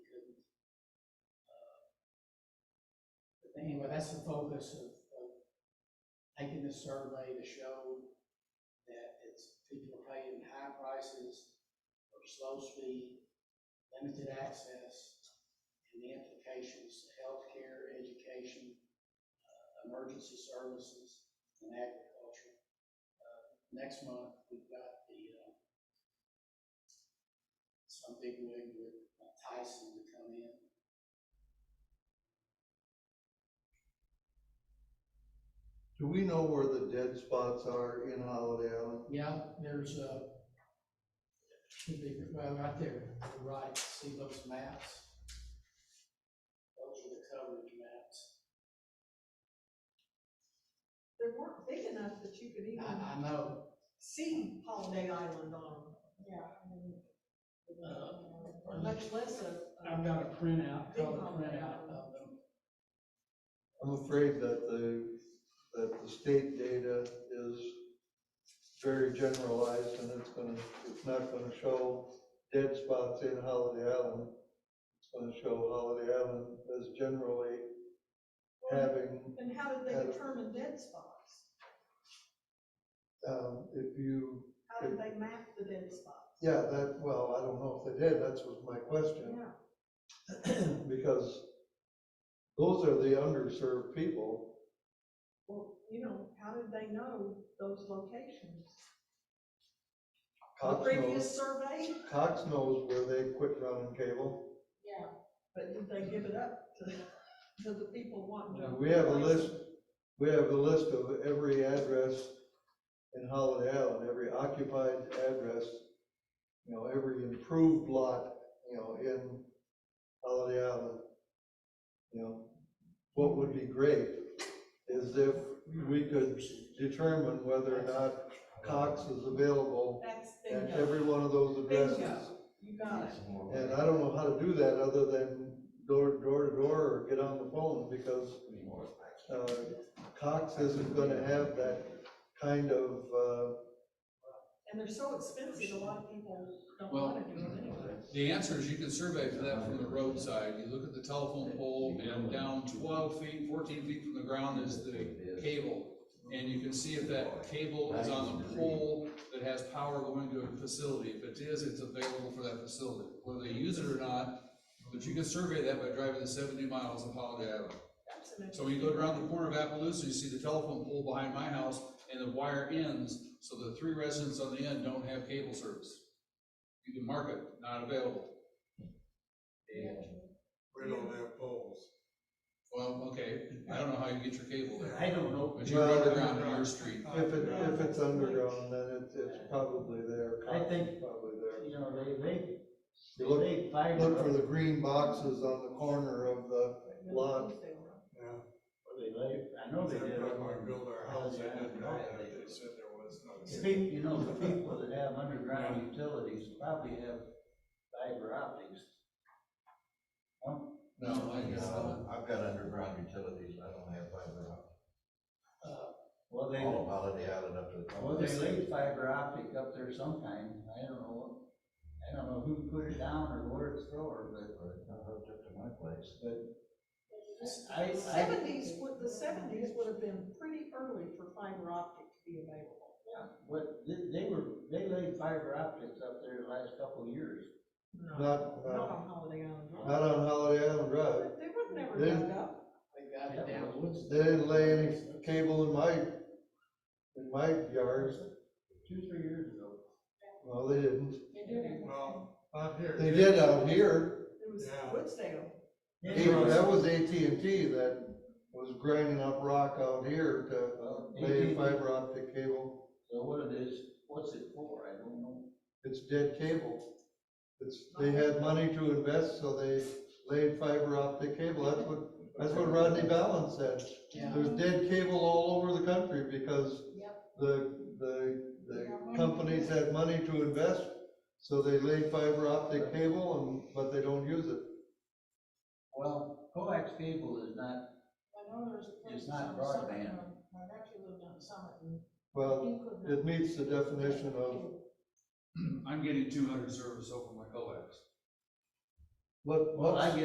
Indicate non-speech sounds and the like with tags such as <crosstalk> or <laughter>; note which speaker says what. Speaker 1: anyway, that's the focus of, of taking this survey to show that it's people are paying high prices for slow speed, limited access, and the implications to healthcare, education, uh, emergency services, and agriculture. Uh, Next month, we've got the, uh, some big wig with Tyson to come in.
Speaker 2: Do we know where the dead spots are in Holiday Island?
Speaker 1: Yeah, there's a, should be, well, right there, to the right, see those maps? Those are the coverage maps.
Speaker 3: They weren't big enough that you could
Speaker 2: Uh-huh.
Speaker 3: even
Speaker 1: I, I know,
Speaker 3: see Holiday Island on them. Yeah.
Speaker 2: Uh-huh.
Speaker 3: Or much less a.
Speaker 1: I've got a printout, color printout of them.
Speaker 2: I'm afraid that the, that the state data is very generalized and it's gonna, it's not gonna show dead spots in Holiday Island. It's gonna show Holiday Island as generally having,
Speaker 3: And how did they determine dead spots?
Speaker 2: um, if you,
Speaker 3: How did they map the dead spots?
Speaker 2: yeah, that, well, I don't know if they did, that's was my question.
Speaker 3: Yeah.
Speaker 2: <clears throat> Because those are the underserved people.
Speaker 3: Well, you know, how did they know those locations? The
Speaker 2: Cox knows,
Speaker 3: previous survey?
Speaker 2: Cox knows where they quit running cable.
Speaker 3: Yeah. But did they give it up to, to the people wanting? to
Speaker 2: We have a
Speaker 3: place
Speaker 2: list, we have a list of every address in Holiday Island, every occupied address, you know, every improved lot, you know, in Holiday Island. You know, what would be great is if we could determine whether or not Cox is available
Speaker 3: That's
Speaker 2: at
Speaker 3: bingo.
Speaker 2: every one of those addresses.
Speaker 3: Bingo. You got it.
Speaker 2: And I don't know how to do that other than door, door to door or get on the phone because uh, Cox isn't gonna have that kind of, uh,
Speaker 3: And they're so expensive, a lot of people don't
Speaker 4: Well,
Speaker 3: want to do it anyway.
Speaker 4: The answer is you can survey for that from the roadside. You look at the telephone pole and down twelve feet, fourteen feet from the ground is the cable. And you can see if that cable is on the pole that has power going to a facility. If it is, it's available for that facility, whether they use it or not. But you can survey that by driving the seventy miles of Holiday Island.
Speaker 3: That's an
Speaker 4: So when you go around the corner of Appaloosa, you see the telephone pole behind my house and the wire ends, so the three residents on the end don't have cable service. You can mark it, not available.
Speaker 5: We don't have poles.
Speaker 4: Well, okay, I don't know how you get your cable there,
Speaker 1: I don't know,
Speaker 4: but you run it around on your street.
Speaker 2: if it, if it's underground, then it's, it's probably there.
Speaker 6: I
Speaker 2: Cox
Speaker 6: think-
Speaker 2: is Probably there.
Speaker 6: You know, they, they,
Speaker 2: You look-
Speaker 6: they find.
Speaker 2: Look for the green boxes on the corner of the, Lot.
Speaker 5: Yeah.
Speaker 6: Well, they lay- I know they
Speaker 5: Every
Speaker 6: did.
Speaker 5: time I built our house, I didn't know that,
Speaker 6: Right, they-
Speaker 5: they said there was
Speaker 6: The
Speaker 5: no.
Speaker 6: people, you know, the people that have underground utilities probably have fiber optics.
Speaker 4: No, I guess,
Speaker 7: No,
Speaker 4: not.
Speaker 7: I've got underground utilities, I don't have fiber optic,
Speaker 6: Well, they,
Speaker 5: Oh.
Speaker 7: all of Holiday Island up to the. top.
Speaker 6: well, they laid fiber optic up there sometime, I don't know, what- I don't know who put it down or where it's from, but
Speaker 7: But it's not hooked up to my place.
Speaker 6: I, I.
Speaker 3: Seventies, would the seventies would have been pretty early for fiber optic to be available.
Speaker 6: Yeah, but they, they were, they laid fiber optics up there the last couple of years.
Speaker 2: Not-
Speaker 3: Not
Speaker 2: not-
Speaker 3: on Holiday Island.
Speaker 2: not on Holiday Island Drive.
Speaker 3: They would never
Speaker 2: They-
Speaker 3: dug up.
Speaker 1: they got it down. What's-
Speaker 2: They didn't lay any cable in my, in my yard.
Speaker 6: Two, three years ago.
Speaker 2: Well, they didn't.
Speaker 5: Well, out here.
Speaker 2: They did out here.
Speaker 3: It was
Speaker 5: Yeah.
Speaker 3: Woodsdale.
Speaker 2: Cable- That was AT&T that was grinding up rock out here to
Speaker 6: Well,
Speaker 2: lay
Speaker 6: AT&T.
Speaker 2: fiber optic cable.
Speaker 6: So what it is, what's it for, I don't know.
Speaker 2: It's dead cable. It's, they had money to invest, so they laid fiber optic cable. That's what, that's what Rodney Ballin said.
Speaker 1: Yeah.
Speaker 2: There's dead cable all over the country because the, the, the companies had money to invest, so they laid fiber optic cable and, but they don't use it.
Speaker 6: Well, coax cable is not,
Speaker 3: I know there's. a
Speaker 6: It's
Speaker 3: place
Speaker 6: not
Speaker 3: on Summit,
Speaker 6: broadband.
Speaker 3: on- My nephew lived on Summit and
Speaker 2: Well,
Speaker 3: he could not.
Speaker 2: it meets the definition of
Speaker 4: I'm getting two hundred service over my coax.
Speaker 2: what,
Speaker 6: well, I
Speaker 2: what's
Speaker 6: get